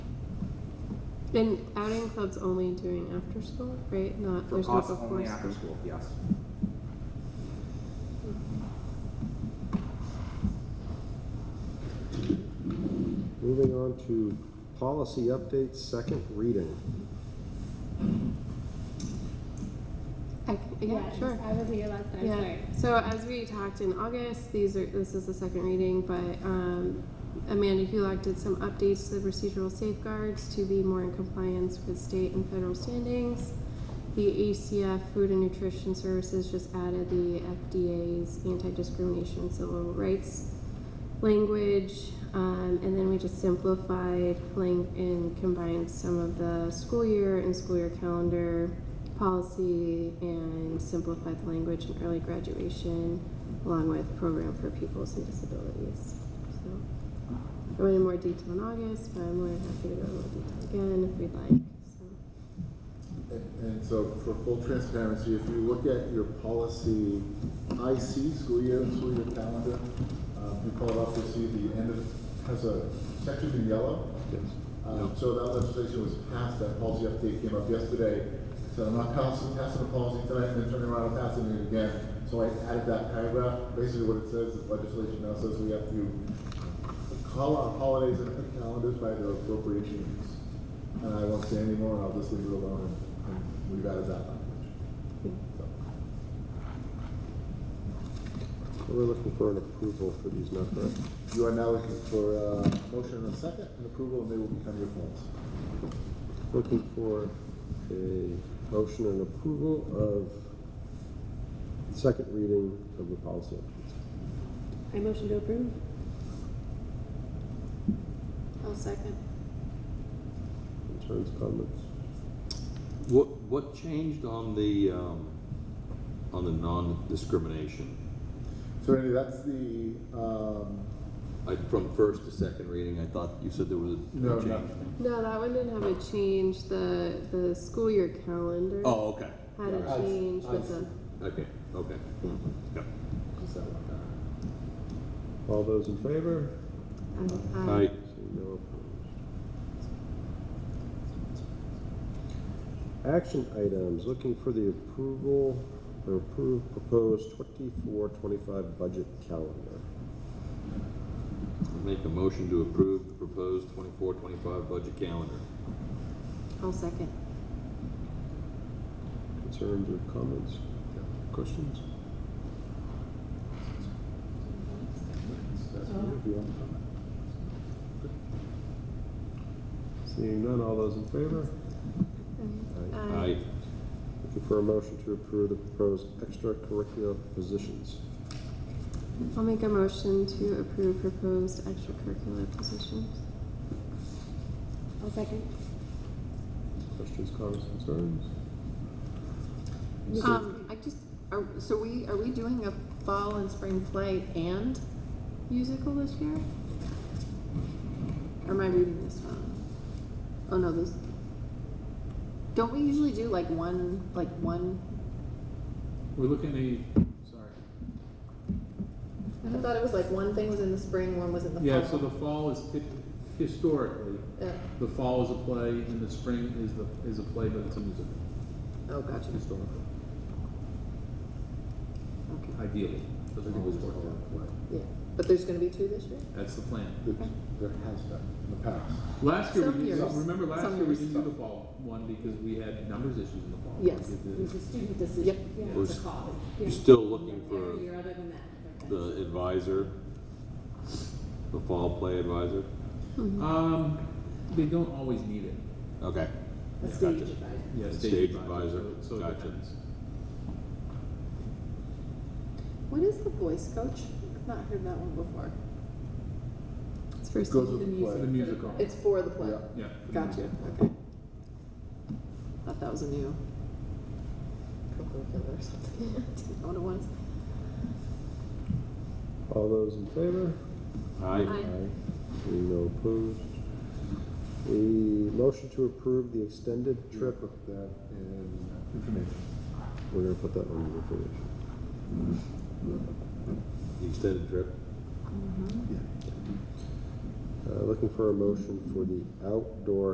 And outing club's only doing after school, right? Not For there's us, no before only school. after school, yes. Moving on to policy updates, second reading. I c- yeah, sure. I was here last time, yeah. sorry. So as we talked in August, these are this is the second reading, but um, Amanda Hulock did some updates to the procedural safeguards to be more in compliance with state and federal standings. The ACF Food and Nutrition Services just added the FDA's anti-discrimination civil rights language, um, and then we just simplified lang- and combined some of the school year and school year calendar policy and simplified the language in early graduation along with program for pupils and disabilities. So I went in more detail in August, but I'm more than happy to go in more detail again if we'd like. So And and so for full transparency, if you look at your policy IC, school year and school year calendar, uh, if you pull it up, you'll see the end of, has a section in yellow. Uh, So that legislation was passed, that policy update came up yesterday. So I'm not passing, passing the policy tonight and then turning around and passing it again. So I added that paragraph. Basically what it says, is legislation now says we have to call our holidays and calendars by their appropriations. And I won't say any more, and I'll just leave it alone, and- and we've added that language. So, We're looking for an approval for these, not correct? You are now looking for a motion and a second, and approval, and they will become your forms. Looking for a motion and approval of second reading of the policy updates. I motion to approve. I'll second. Concerns, comments? What, what changed on the, um, on the non-discrimination? So Randy, that's the, um, I, from first to second reading, I thought you said there was a no, change. nothing. No, that one didn't have a change. The the school year calendar Oh, okay, had a I- change I with see. the okay, okay. Yep. Just that one. All those in favor? uh, uh, All right, Seeing no opposed. Action items, looking for the approval or approved proposed twenty-four, twenty-five budget calendar. I'll make a motion to approve the proposed 24-25 budget calendar. I'll second. Concerns or comments? Questions? That's what we want to comment. Seeing none, all those in favor? Uh, Aye, Looking for a motion to approve the proposed extracurricular positions. I'll make a motion to approve proposed extracurricular positions. I'll second. Questions, comments, concerns? Um, I just, are, so we, are we doing a fall and spring play and musical this year? Or am I reading this wrong? Oh, no, this, don't we usually do like one, like one? We're looking at, sorry. I thought it was like one thing was in the spring, one was in the fall. Yeah, so the fall is tip- historically, Yeah. the fall is a play and the spring is the, is a play, but it's a musical, Oh, gotcha, historical, okay, ideally. Doesn't always work out. yeah. But there's gonna be two this year? That's the plan. There- There has been in the past. Last year, Some we didn't, years. remember last Some year we years. didn't do the fall one because we had numbers issues in the fall. Yes. We It did was the- a student Yep. decision. Yeah, We're it's a s- call. you're Yeah. still looking for Every year other than that. but the advisor, the fall play advisor. Um, they don't always need it. Okay, that's A yeah, stage gotcha. advisor. Yeah, Stage advisor, So so it gotcha. depends. What is the voice coach? I've not heard that one before. It's for It goes singing. with the The play. musical. It's for the play. Yeah. Yeah. Gotcha, okay. Thought that was a new curriculum or something. Didn't know what it was. All those in favor? Aye, Aye. Seeing no opposed. We motion to approve the extended trip. Trip of that in information. We're gonna put that on the information. the extended trip. Yeah. Uh, looking for a motion for the outdoor